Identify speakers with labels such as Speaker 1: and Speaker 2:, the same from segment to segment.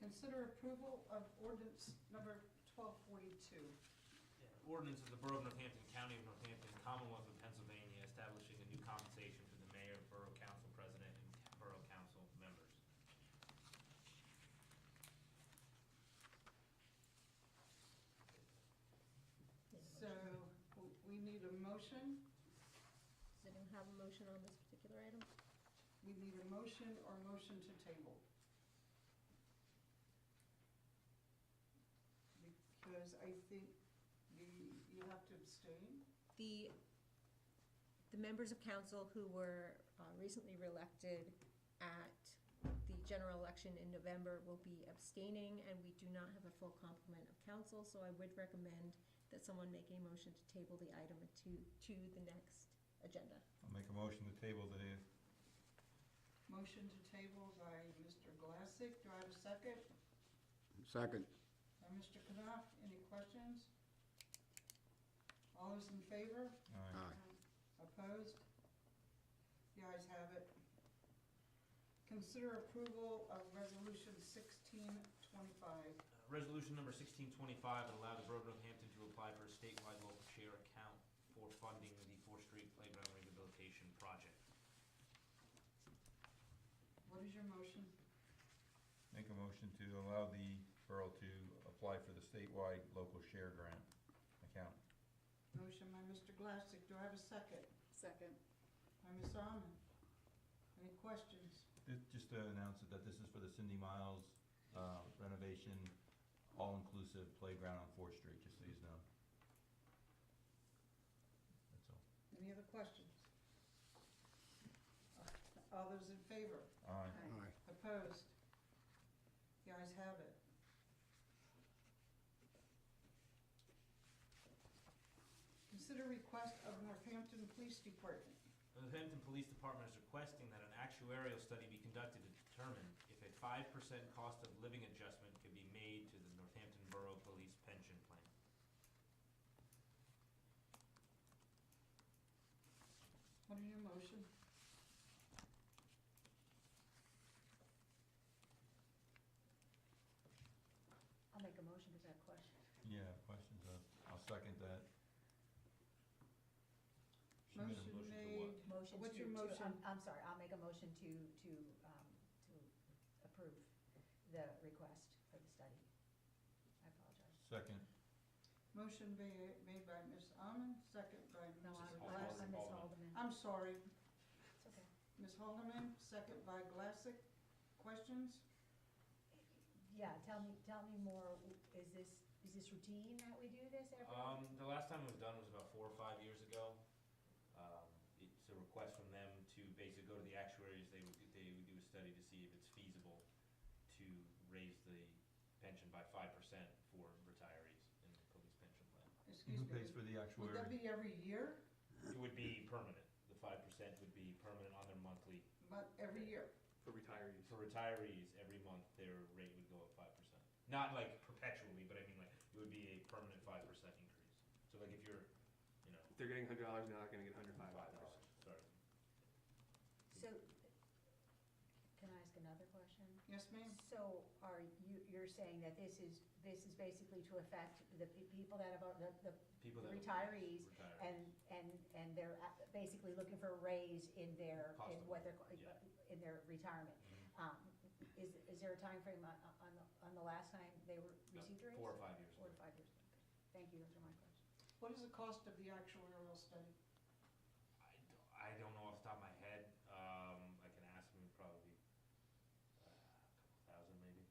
Speaker 1: consider approval of ordinance number twelve forty-two.
Speaker 2: Ordinance of the Borough of Northampton, County of Northampton, Commonwealth of Pennsylvania, establishing a new compensation for the mayor, borough council president, and borough council members.
Speaker 1: So w- we need a motion,
Speaker 3: Does anyone have a motion on this particular item?
Speaker 1: we need a motion or motion to table. Because I think the, you have to abstain.
Speaker 3: The, the members of council who were uh, recently reelected at the general election in November will be abstaining, and we do not have a full complement of council, so I would recommend that someone make a motion to table the item to, to the next agenda.
Speaker 4: I'll make a motion to table the,
Speaker 1: Motion to table by Mr. Glassick, do I have a second?
Speaker 5: Second.
Speaker 1: By Mr. Knopf, any questions? All those in favor?
Speaker 4: aye.
Speaker 5: Aye.
Speaker 1: Opposed? The ayes have it. Consider approval of resolution sixteen twenty-five.
Speaker 2: Uh, Resolution number sixteen twenty-five would allow the Borough of Northampton to apply for a statewide local share account for funding the Fourth Street Playground Rehabilitation Project.
Speaker 1: What is your motion?
Speaker 4: Make a motion to allow the borough to apply for the statewide local share grant account.
Speaker 1: Motion by Mr. Glassick, do I have a second?
Speaker 6: Second.
Speaker 1: By Ms. Almond. Any questions?
Speaker 4: Ju- Just to announce that this is for the Cindy Miles uh, renovation, all-inclusive playground on Fourth Street, just so you know. That's all.
Speaker 1: Any other questions? All those in favor?
Speaker 4: Aye.
Speaker 5: Aye.
Speaker 1: Opposed? The ayes have it. Consider request of Northampton Police Department.
Speaker 2: The Northampton Police Department is requesting that an actuarial study be conducted to determine if a five percent cost of living adjustment could be made to the Northampton Borough Police Pension Plan.
Speaker 1: What is your motion?
Speaker 6: I'll make a motion to that question.
Speaker 4: Yeah, questions? Uh, I'll second that.
Speaker 1: Motion
Speaker 4: She made a motion to what?
Speaker 1: made.
Speaker 6: Motion to.
Speaker 1: What's your
Speaker 6: to- um,
Speaker 1: motion?
Speaker 6: I'm- I'm sorry, I'll make a motion to, to, um, to approve the request for the study. I apologize.
Speaker 4: Second.
Speaker 1: Motion ba- made by Ms. Almond, second by
Speaker 6: No,
Speaker 1: Mrs.
Speaker 6: I'm,
Speaker 2: Alderman.
Speaker 6: I'm
Speaker 1: Glassick.
Speaker 6: Ms. Haldeman.
Speaker 1: I'm sorry,
Speaker 6: It's okay.
Speaker 1: Ms. Haldeman, second by Glassick. Questions?
Speaker 6: Yeah, tell me, tell me more, is this, is this routine that we do this every?
Speaker 2: Um, the last time it was done was about four or five years ago. Um, it's a request from them to basically go to the actuaries, they would, they would do a study to see if it's feasible to raise the pension by five percent for retirees in the police pension plan.
Speaker 1: Excuse me.
Speaker 4: Who pays for the
Speaker 1: Would that be
Speaker 4: actuary?
Speaker 1: every year?
Speaker 2: It would be permanent, the five percent would be permanent on their monthly,
Speaker 1: But every year?
Speaker 7: For retirees.
Speaker 2: for retirees, every month their rate would go up five percent. Not like perpetually, but I mean like, it would be a permanent five percent increase. So like if you're, you know,
Speaker 7: If they're getting hundred dollars, they're not gonna get hundred five
Speaker 2: five
Speaker 7: dollars.
Speaker 2: dollars, sorry.
Speaker 6: So, can I ask another question?
Speaker 1: Yes, ma'am?
Speaker 6: So are you, you're saying that this is, this is basically to affect the pe- people that have, al- the, the
Speaker 2: People that.
Speaker 6: Retirees
Speaker 2: Retirees.
Speaker 6: And, and, and they're a- basically looking for a raise in their,
Speaker 2: Cost
Speaker 6: in
Speaker 2: of
Speaker 6: what they're,
Speaker 2: living, yeah.
Speaker 6: in their retirement.
Speaker 2: Mhm.
Speaker 6: Um, Is, is there a timeframe on, on, the- on the last time they were
Speaker 2: No,
Speaker 6: received a raise?
Speaker 2: Four or five years.
Speaker 6: Four to
Speaker 2: later.
Speaker 6: five years. Okay. Thank you, those are my questions.
Speaker 1: What is the cost of the actuarial study?
Speaker 2: I don't, I don't know off the top of my head, um, I can ask them probably, uh, a couple thousand maybe,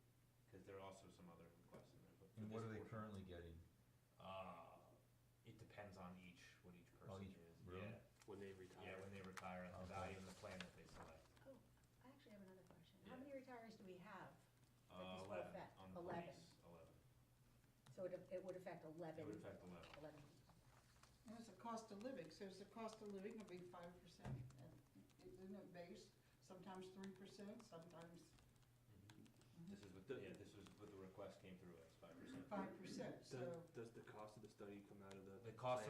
Speaker 2: cause there are also some other requests in there, but. for
Speaker 4: And what
Speaker 2: this
Speaker 4: are they
Speaker 2: portion-
Speaker 4: currently getting?
Speaker 2: Uh, it depends on each, what each
Speaker 4: Oh,
Speaker 2: person
Speaker 4: each-
Speaker 2: is,
Speaker 4: really?
Speaker 2: yeah,
Speaker 7: When they
Speaker 2: yeah,
Speaker 7: retire.
Speaker 2: when they retire, and the
Speaker 4: Okay.
Speaker 2: value and the plan that they select.
Speaker 6: Oh, I actually have another question. How
Speaker 2: Yeah.
Speaker 6: many retirees do we have? That
Speaker 2: Uh,
Speaker 6: is for
Speaker 2: eleven,
Speaker 6: effect.
Speaker 2: on the
Speaker 6: Eleven.
Speaker 2: police, eleven,
Speaker 6: So it, it would affect
Speaker 2: it
Speaker 6: eleven,
Speaker 2: would affect eleven,
Speaker 6: eleven.
Speaker 1: And it's a cost of living, so it's a cost of living of be five percent, isn't it based, sometimes three percent, sometimes
Speaker 6: Mm-hmm.
Speaker 2: this is what, the- yeah, this was what the request came through as, five percent.
Speaker 1: five percent,
Speaker 7: Does,
Speaker 1: so.
Speaker 7: does the cost of the study come out of
Speaker 2: The
Speaker 7: the?
Speaker 2: cost of